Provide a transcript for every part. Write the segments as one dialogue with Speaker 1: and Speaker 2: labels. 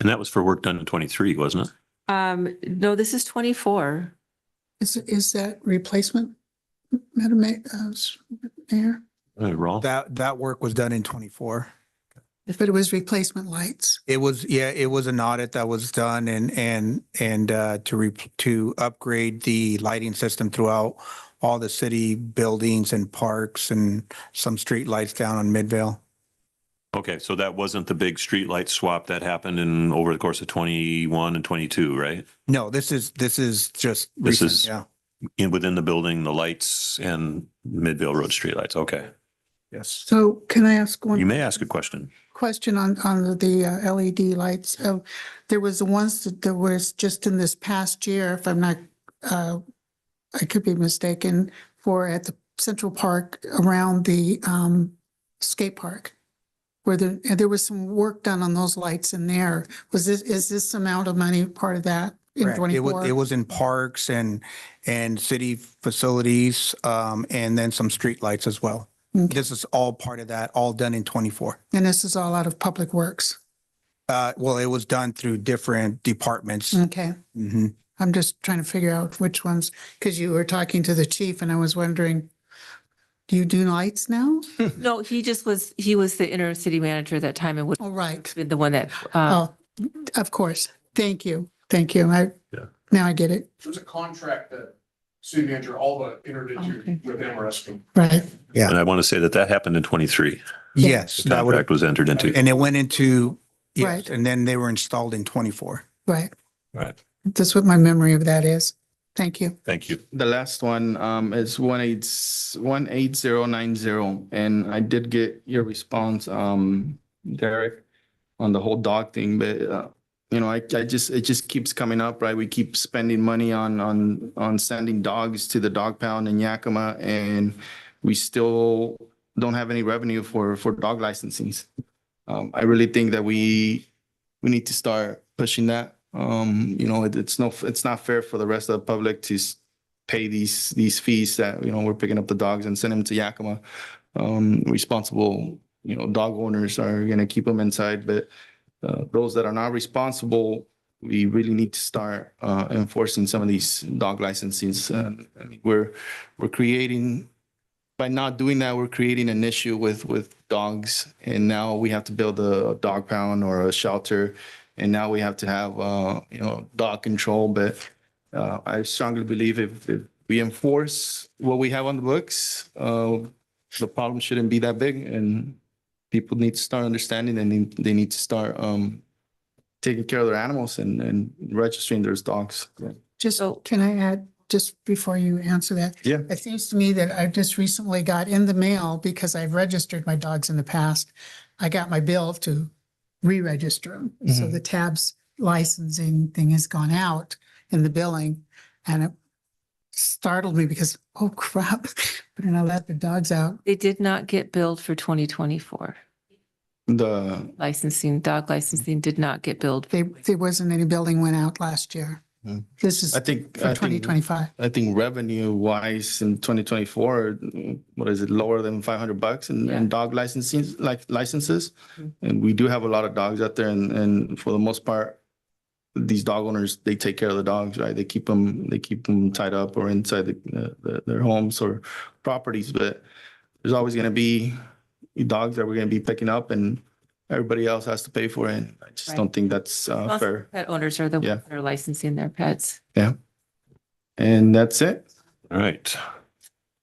Speaker 1: And that was for work done in twenty-three, wasn't it?
Speaker 2: Um, no, this is twenty-four.
Speaker 3: Is, is that replacement, Madam Ma- uh, s- Mayor?
Speaker 1: Uh, Raul?
Speaker 4: That, that work was done in twenty-four.
Speaker 3: But it was replacement lights.
Speaker 4: It was, yeah, it was an audit that was done and, and, and, uh, to re, to upgrade the lighting system throughout all the city buildings and parks and some street lights down on Midvale.
Speaker 1: Okay, so that wasn't the big streetlight swap that happened in, over the course of twenty-one and twenty-two, right?
Speaker 4: No, this is, this is just.
Speaker 1: This
Speaker 4: recent,
Speaker 1: is-
Speaker 4: Yeah,
Speaker 1: In, within the building, the lights and Midvale Road streetlights, okay.
Speaker 4: yes.
Speaker 3: So can I ask
Speaker 1: You
Speaker 3: one
Speaker 1: may ask a question.
Speaker 3: question on, on the uh, LED lights? Uh, There was the ones that there was just in this past year, if I'm not, uh, I could be mistaken, for at the Central Park around the um, skate park. Where there, and there was some work done on those lights in there. Was this, is this amount of money part of that in
Speaker 4: Correct. It
Speaker 3: twenty-four?
Speaker 4: was, it was in parks and, and city facilities, um, and then some street lights as well.
Speaker 3: Okay.
Speaker 4: This is all part of that, all done in twenty-four.
Speaker 3: And this is all out of Public Works.
Speaker 4: Uh, well, it was done through different departments.
Speaker 3: Okay.
Speaker 4: Mhm.
Speaker 3: I'm just trying to figure out which ones, because you were talking to the chief and I was wondering, do you do lights now?
Speaker 2: No, he just was, he was the inner city manager at that time and would,
Speaker 3: Oh, right.
Speaker 2: the one that, uh,
Speaker 3: Oh, of course. Thank you. Thank you. I,
Speaker 1: Yeah.
Speaker 3: now I get it.
Speaker 5: It was a contract that city manager Alba entered
Speaker 3: Okay.
Speaker 5: into with MRSP.
Speaker 3: Right.
Speaker 4: Yeah.
Speaker 1: And I want to say that that happened in twenty-three.
Speaker 3: Yeah.
Speaker 4: Yes,
Speaker 1: The
Speaker 4: that would,
Speaker 1: contract was entered into.
Speaker 4: and it went into,
Speaker 3: Right.
Speaker 4: yes, and then they were installed in twenty-four.
Speaker 3: Right.
Speaker 1: Right.
Speaker 3: That's what my memory of that is. Thank you.
Speaker 1: Thank you.
Speaker 6: The last one um is one eight, one eight zero nine zero, and I did get your response, um, Derek. On the whole dog thing, but uh, you know, I I just, it just keeps coming up, right? We keep spending money on on on sending dogs to the dog pound in Yakima and. We still don't have any revenue for for dog licensings. Um, I really think that we we need to start pushing that. Um, you know, it- it's no, it's not fair for the rest of the public to s- pay these these fees that you know we're picking up the dogs and sending them to Yakima. Um, responsible, you know, dog owners are gonna keep them inside, but uh, those that are not responsible, we really need to start uh, enforcing some of these dog licenses. And I mean, we're we're creating by not doing that, we're creating an issue with with dogs, and now we have to build a dog pound or a shelter, and now we have to have uh, you know dog control, but. Uh, I strongly believe if, if we enforce what we have on the books, uh, the problem shouldn't be that big and people need to start understanding and they- they need to start, um, taking care of their animals and, and registering their dogs.
Speaker 3: Just,
Speaker 2: So-
Speaker 3: can I add, just before you answer that?
Speaker 6: Yeah.
Speaker 3: It seems to me that I just recently got in the mail, because I've registered my dogs in the past, I got my bill to re-register them. So
Speaker 6: Mm-hmm.
Speaker 3: the tabs licensing thing has gone out in the billing, and it startled me because, oh crap, better not let the dogs out.
Speaker 2: they did not get billed for twenty twenty-four.
Speaker 6: The,
Speaker 2: Licensing, dog licensing did not get billed.
Speaker 3: They, there wasn't any billing went out last year.
Speaker 6: Hmm.
Speaker 3: This is
Speaker 6: I think. I
Speaker 3: for
Speaker 6: think-
Speaker 3: twenty twenty-five.
Speaker 6: I think revenue wise in twenty twenty four, what is it, lower than five hundred bucks and,
Speaker 2: Yeah. Mm-hmm.
Speaker 6: and dog licensing, like licenses? And we do have a lot of dogs out there and, and for the most part, these dog owners, they take care of the dogs, right? They keep them, they keep them tied up or inside the, the, their homes or properties, but there's always gonna be dogs that we're gonna be picking up and everybody else has to pay for it. I just
Speaker 2: Right.
Speaker 6: don't think that's, uh,
Speaker 2: Most
Speaker 6: fair.
Speaker 2: Pet owners are the
Speaker 6: Yeah.
Speaker 2: ones that are licensing their pets.
Speaker 6: And that's it.
Speaker 1: All right.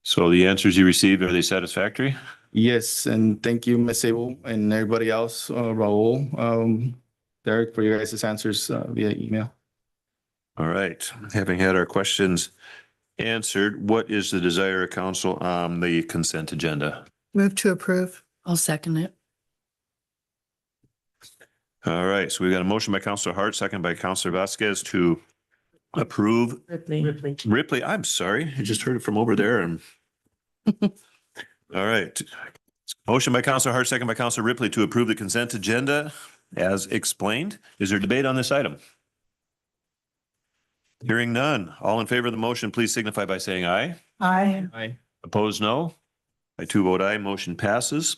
Speaker 1: So the answers you received, are they satisfactory?
Speaker 6: Yes, and thank you, Ms. Abel, and everybody else, uh, Raul, um, Derek, for your guys' answers uh, via email.
Speaker 1: All right, having had our questions answered, what is the desire of council on the consent agenda?
Speaker 3: Move to approve.
Speaker 7: I'll second it.
Speaker 1: All right, so we've got a motion by Counselor Hart, second by Counselor Vasquez to approve
Speaker 7: Ripley.
Speaker 1: Ripley. I'm sorry, I just heard it from over there and all right. Motion by Counselor Hart, second by Counselor Ripley to approve the consent agenda as explained. Is there debate on this item? Hearing none. All in favor of the motion, please signify by saying aye.
Speaker 3: Aye.
Speaker 6: Aye.
Speaker 1: Opposed, no. I two vote aye, motion passes.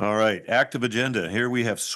Speaker 1: All right, active agenda. Here we have